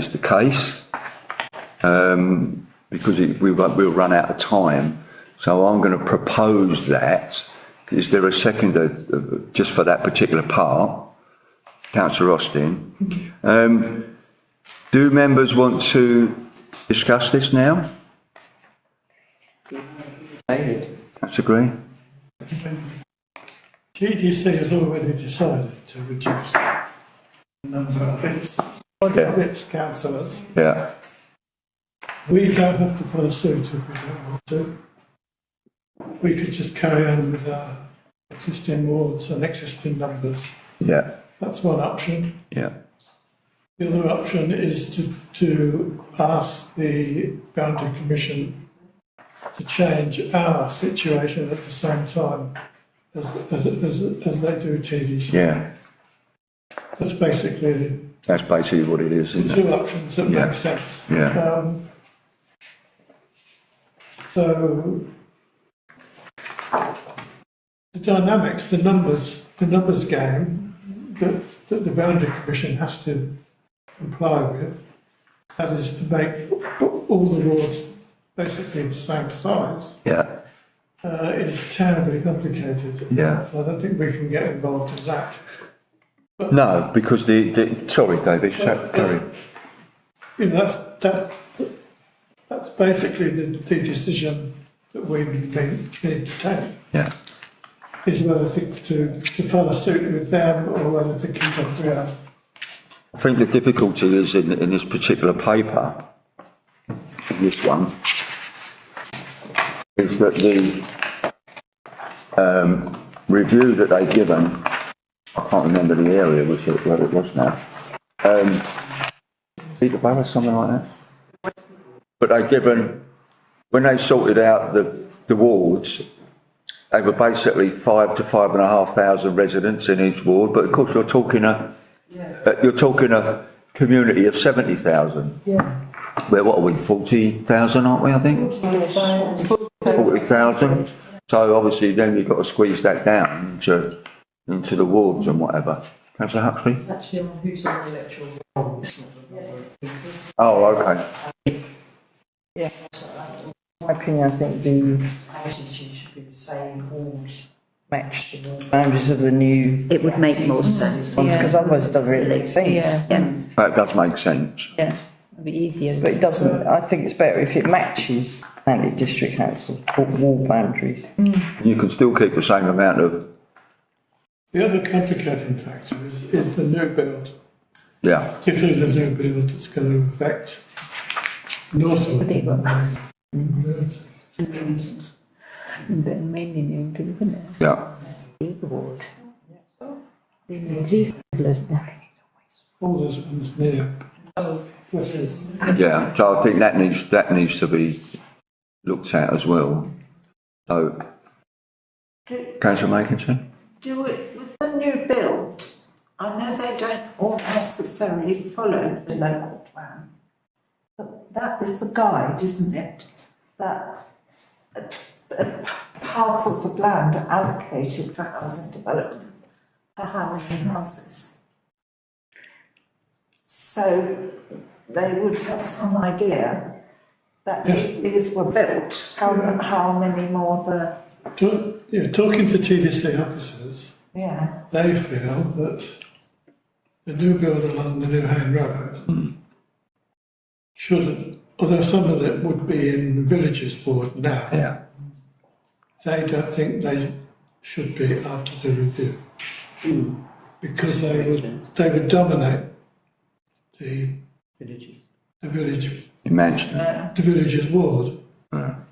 is the case, um, because it, we, won't- we'll run out of time. So I'm going to propose that. Is there a second of, of- just for that particular part? Councillor Austin. Um, do members want to discuss this now? David. That's agree? GDC has already decided to reduce the number of its, Yeah. of its councillors. Yeah, We don't have to follow suit if we don't want to. We could just carry on with our existing wards and existing numbers. yeah, That's one option. yeah. The other option is to, to ask the boundary commission to change our situation at the same time as, as, as, as they do TDC. Yeah, That's basically the that's basically what it is, isn't it? two options that Yeah. make sense. Yeah, Um, so the dynamics, the numbers, the numbers game that, that the boundary commission has to comply with, that is to make all the wards basically the same size, yeah, uh, is terribly complicated. Yeah. So I don't think we can get involved in that. no, because the, the, sorry, David, so- sorry, You know, that's, that, that's basically the, the decision that we need, need to take, yeah, is whether to, to, to follow suit with them or whether to keep up with our I think the difficulty is in, in this particular paper, this one, is that the, um, review that they've given, I can't remember the area which it, where it was now, um, Peterborough, something like that? But they've given, when they sorted out the, the wards, they were basically five to five and a half thousand residents in each ward, but of course you're talking a, uh, you're talking a community of seventy thousand. Yeah. Where, what are we, forty thousand, aren't we, I think? Forty thousand, so obviously then you've got to squeeze that down into, into the wards and whatever. Councillor Huxley? actually on who's on the electoral roll, it's not on the number. Oh, okay, My opinion, I think the Houses should be the same, all match the ones. boundaries of the new It would make more sense. ones, because otherwise it doesn't really make sense. Yeah, that does make sense, yeah, it'd be easier. But it doesn't, I think it's better if it matches Langley District Council wa- wall boundaries. you can still keep the same amount of, The other complicating factor is, is the new build, yeah, particularly the new build that's going to affect north of. Mm-hmm. mainly new, isn't it? yeah, Big ward. Big ward. All those ones near. yeah, so I think that needs, that needs to be looked at as well. So, Councillor Makinson? Do it with the new build. I know they don't all necessarily follow the local plan. But that is the guide, isn't it? That uh, uh, parcels of land are allocated for housing development, for how many houses. So they would have some idea that Yes. if these were built, how, how many more the, Talk, yeah, talking to TDC officers, yeah. they feel that the new build along the New Hane Road shouldn't, although some of it would be in the villages board now, Yeah. they don't think they should be after the review. Because they would, they would dominate the, the village, Imagine. the village's ward.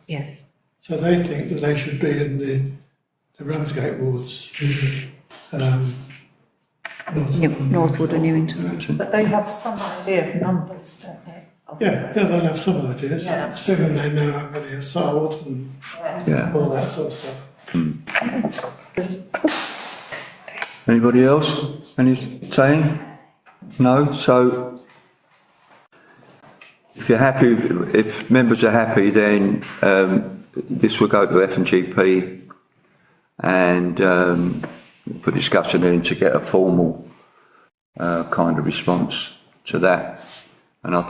Yes. So they think that they should be in the, the Ramsgate wards, um, Northwood or Newington. But they have some idea of numbers, don't they? Of- Yeah, yeah, they'll have some ideas, Yeah. assuming they know how many are sold and Yeah. all that sort of stuff. Anybody else? Any saying? No? So if you're happy, if members are happy, then um, this will go to F and GP and um, for discussion and to get a formal uh, kind of response to that. And I